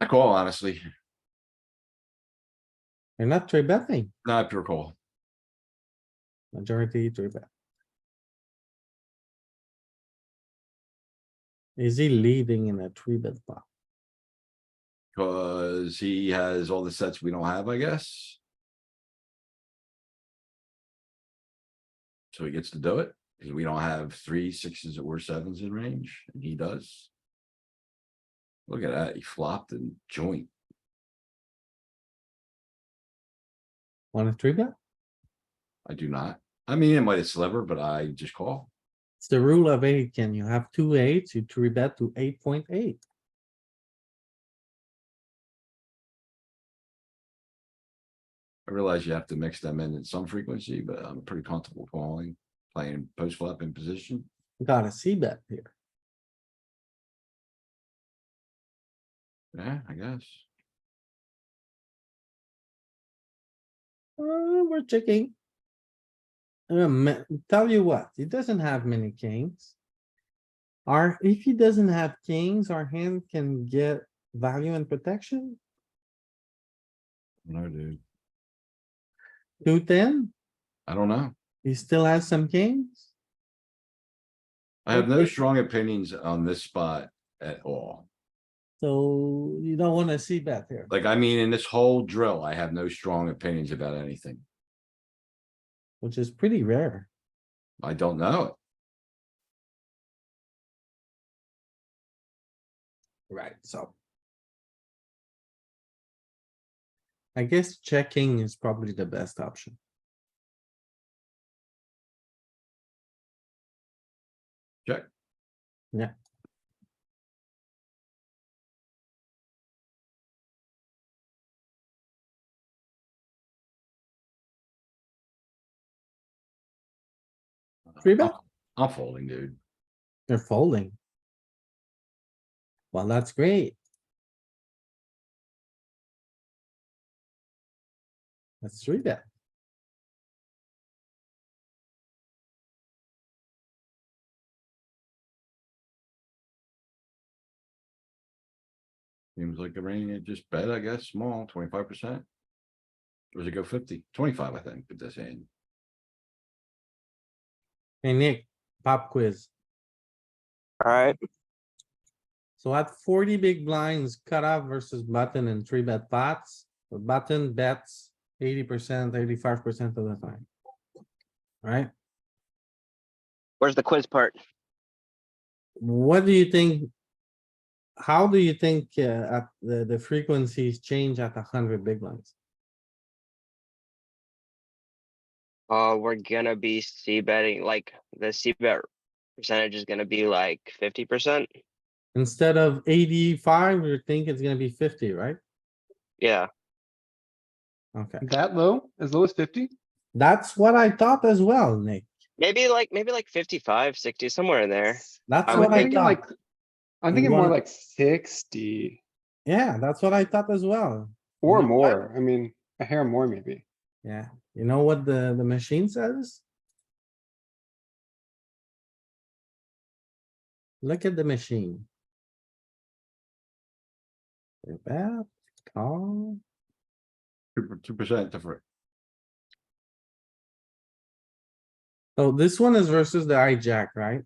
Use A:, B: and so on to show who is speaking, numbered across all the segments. A: I call honestly,
B: You're not three betting,
A: not pure call.
B: majority three bet. Is he leading in a three bet pot?
A: Cause he has all the sets we don't have, I guess. So he gets to do it, cause we don't have three sixes or sevens in range, and he does. Look at that, he flopped and joint.
B: Wanna three bet?
A: I do not. I mean, it might have sliver, but I just call.
B: It's the rule of eight, Can You have two eights, you three bet to eight point eight.
A: I realize you have to mix them in at some frequency, but I'm pretty comfortable calling, playing post flop in position.
B: Gotta see bet here.
A: Yeah, I guess.
B: Uh, we're checking. Um, tell you what, he doesn't have many kings. Our if he doesn't have kings, our hand can get value and protection,
A: No, dude.
B: two ten,
A: I don't know.
B: he still has some kings.
A: I have no strong opinions on this spot at all.
B: So you don't wanna see bet here.
A: Like, I mean, in this whole drill, I have no strong opinions about anything.
B: which is pretty rare.
A: I don't know it.
B: Right, so. I guess checking is probably the best option.
A: Check.
B: Yeah. Three bet,
A: I'm- I'm folding, dude.
B: they're folding. Well, that's great. Let's three bet.
A: Seems like the range, it just bet, I guess, small, twenty-five percent. Or does it go 50? 25, I think, at this end.
B: Hey Nick, pop quiz.
C: Alright,
B: So at forty big blinds, cutoff versus button and three bet pots, the button bets eighty percent, eighty-five percent of the time. Right?
C: where's the quiz part?
B: What do you think? How do you think uh, at the, the frequencies change at hundred big blinds?
C: Uh, we're gonna be c betting, like, the c bet percentage is gonna be like fifty percent,
B: Instead of eighty-five, you think it's gonna be fifty, right?
C: yeah.
B: Okay,
D: That low, as low as fifty?
B: that's what I thought as well, Nick.
C: Maybe like, maybe like 55, 60, somewhere in there.
B: That's
C: I
D: I'm
C: would
B: what I
C: think
D: thinking
B: thought.
D: like, I'm thinking
B: wanna-
D: more like sixty
B: Yeah, that's what I thought as well.
D: or
B: No, I-
D: more. I mean, a hair more maybe.
B: Yeah, you know what the, the machine says? Look at the machine. Three bet, call,
A: Two percent different.
B: so Oh, this one is versus the hijack, right?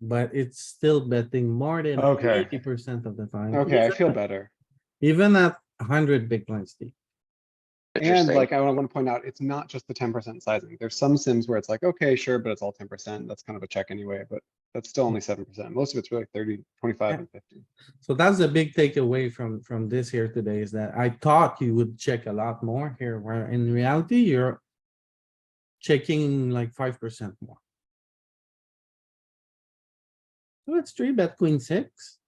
B: But it's still betting more than
D: Okay.
B: eighty percent of the time.
D: Okay, I feel better.
B: Even at hundred big blinds deep.
D: And
C: Interesting.
D: like, I want to point out, it's not just the ten percent sizing. There's some sims where it's like, okay, sure, but it's all ten percent. That's kind of a check anyway, but that's still only seven percent. Most of it's really 30, 25,
B: Yeah.
D: and fifty.
B: So that's the big takeaway from, from this here today is that I thought you would check a lot more here, where in reality, you're checking like five percent more. So it's three bet queen six.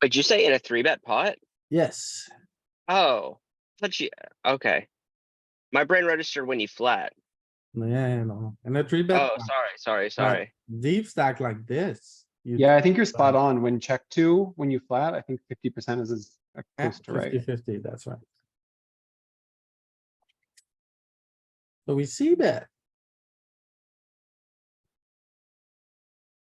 C: Would you say in a three bet pot?
B: Yes,
C: Oh, but you, okay. My brain registered when you flat.
B: yeah, no, and a three bet,
C: Oh, sorry, sorry, sorry.
B: deep stack like this. you
D: Yeah, I think you're spot on. When check two, when you flat, I think fifty percent is as uh,
B: Yeah,
D: close to right.
B: 50-50, that's right. So we see that.